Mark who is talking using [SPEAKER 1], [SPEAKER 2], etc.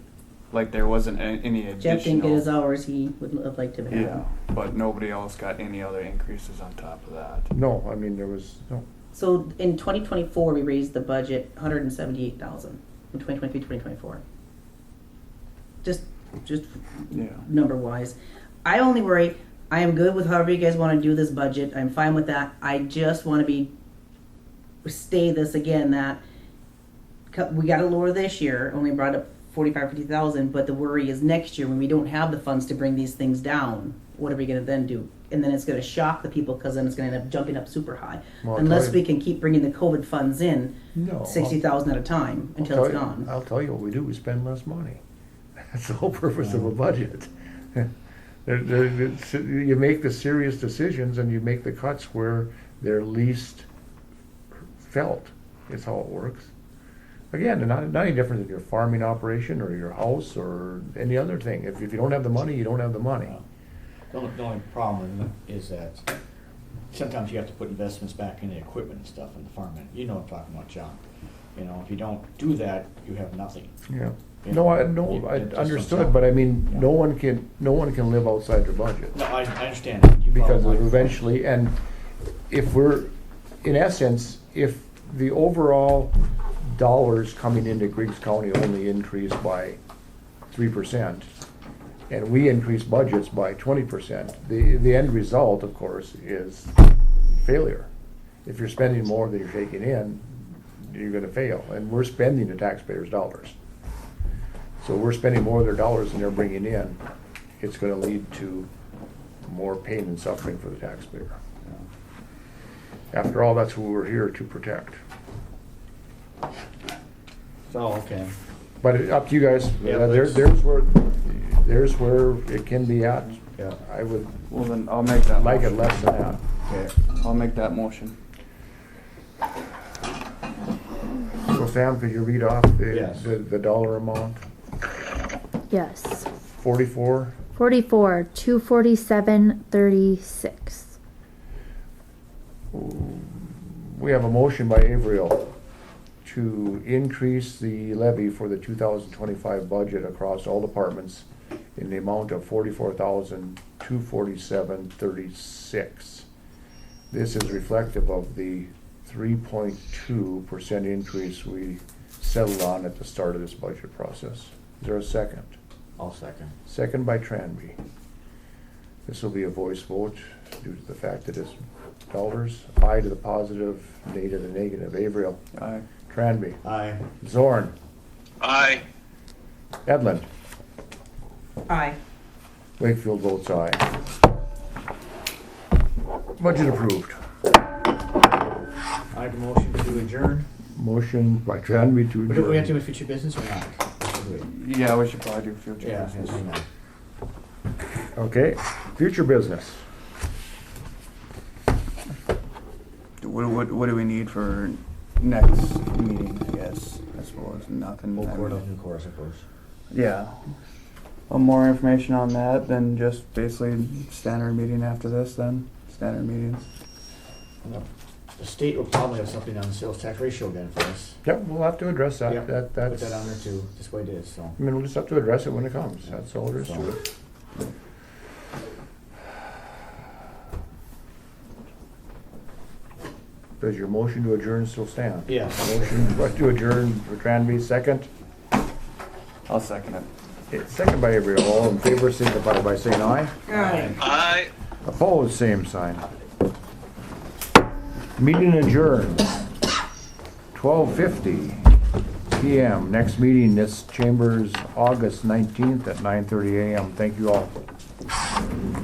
[SPEAKER 1] like there wasn't a- any additional.
[SPEAKER 2] Jeff didn't get his hours he would have liked to have.
[SPEAKER 1] Yeah, but nobody else got any other increases on top of that.
[SPEAKER 3] No, I mean, there was, no,
[SPEAKER 2] So in 2024, we raised the budget 178,000 in 2023, 2024. Just, just
[SPEAKER 1] Yeah.
[SPEAKER 2] number wise. I only worry. I am good with however you guys want to do this budget. I'm fine with that. I just want to be stay this again that cu- we got to lower this year. Only brought up 45, 50,000, but the worry is next year when we don't have the funds to bring these things down. What are we going to then do? And then it's going to shock the people because then it's going to end up jumping up super high.
[SPEAKER 3] Well, I'll
[SPEAKER 2] Unless
[SPEAKER 3] tell you-
[SPEAKER 2] we can keep bringing the COVID funds in,
[SPEAKER 3] no. I'll-
[SPEAKER 2] sixty thousand at a time
[SPEAKER 3] I'll
[SPEAKER 2] until
[SPEAKER 3] tell
[SPEAKER 2] it's
[SPEAKER 3] you-
[SPEAKER 2] gone.
[SPEAKER 3] I'll tell you what we do, we spend less money. That's the whole purpose of a budget. There- there- it's- You make the serious decisions and you make the cuts where they're least felt, is how it works. Again, not, not any different than your farming operation or your house or any other thing. If, if you don't have the money, you don't have the money.
[SPEAKER 4] The only, the only problem is that sometimes you have to put investments back in the equipment and stuff in the farm, and you know what I'm talking about, John. You know, if you don't do that, you have nothing.
[SPEAKER 3] Yeah, no, I, no, I understood, but I mean, no one can, no one can live outside their budget.
[SPEAKER 4] No, I, I understand. that. You
[SPEAKER 3] because
[SPEAKER 4] follow my-
[SPEAKER 3] eventually, and if we're, in essence, if the overall dollars coming into Griggs County only increase by three percent, and we increase budgets by twenty percent, the, the end result, of course, is failure. If you're spending more than you're taking in, you're gonna fail, and we're spending the taxpayers' dollars. So we're spending more of their dollars than they're bringing in, it's gonna lead to more pain and suffering for the taxpayer. After all, that's who we're here to protect.
[SPEAKER 4] So, okay.
[SPEAKER 3] But it- up to you guys,
[SPEAKER 4] Yeah,
[SPEAKER 3] Uh, there,
[SPEAKER 4] that's-
[SPEAKER 3] there's where, there's where it can be at.
[SPEAKER 4] Yeah.
[SPEAKER 3] I would
[SPEAKER 1] Well, then I'll make that.
[SPEAKER 3] like it
[SPEAKER 1] motion.
[SPEAKER 3] less than that.
[SPEAKER 4] Okay.
[SPEAKER 1] I'll make that motion.
[SPEAKER 3] So Sam, could you read off the,
[SPEAKER 4] Yes.
[SPEAKER 3] the, the dollar amount?
[SPEAKER 5] Yes.
[SPEAKER 3] Forty-four,
[SPEAKER 5] 44, 247, 36.
[SPEAKER 3] we have a motion by Averill to increase the levy for the two thousand twenty-five budget across all departments in the amount of forty-four thousand, two forty-seven, thirty-six. This is reflective of the three point two percent increase we settled on at the start of this budget process. Is there a second?
[SPEAKER 4] I'll second.
[SPEAKER 3] Second by Tranby. This will be a voice vote due to the fact that it's dollars, aye to the positive, nay to the negative. Averill,
[SPEAKER 1] Aye.
[SPEAKER 3] Tranby,
[SPEAKER 4] Aye.
[SPEAKER 3] Zorn,
[SPEAKER 6] Aye.
[SPEAKER 3] Edlund.
[SPEAKER 2] Aye.
[SPEAKER 3] Wakefield votes aye. Budget approved.
[SPEAKER 4] I have a motion to adjourn.
[SPEAKER 3] Motion by Tranby to
[SPEAKER 4] But do we have to
[SPEAKER 3] adjourn.
[SPEAKER 4] do future business or not? Should we?
[SPEAKER 1] Yeah, we should probably do future.
[SPEAKER 4] Yeah,
[SPEAKER 1] business.
[SPEAKER 4] yes, we know.
[SPEAKER 3] Okay, future business.
[SPEAKER 1] What, what, what do we need for next meeting, I guess? I suppose nothing.
[SPEAKER 4] Full
[SPEAKER 1] I
[SPEAKER 4] court,
[SPEAKER 1] mean,
[SPEAKER 4] open course, of course.
[SPEAKER 1] Yeah. Well, more information on that than just basically standard meeting after this then? Standard meetings?
[SPEAKER 4] The state will probably have something on the sales tax ratio again for us.
[SPEAKER 3] Yep, we'll have to address
[SPEAKER 4] Yeah,
[SPEAKER 3] that. That,
[SPEAKER 4] Put
[SPEAKER 3] that's,
[SPEAKER 4] that on there
[SPEAKER 3] I
[SPEAKER 4] too, just the way it is, so.
[SPEAKER 3] mean, we'll just have to address it when it comes. That's all there is to it. Does your motion to adjourn still stand?
[SPEAKER 4] Yeah.
[SPEAKER 3] Motion to adjourn for Tranby, second.
[SPEAKER 1] I'll second it.
[SPEAKER 3] Okay, Second by Averill. All in favor, signify by saying aye.
[SPEAKER 2] Aye.
[SPEAKER 6] Aye.
[SPEAKER 3] Opposed, same sign. Meeting adjourned. Twelve fifty PM. Next meeting, this chambers, August nineteenth at nine thirty AM. Thank you all.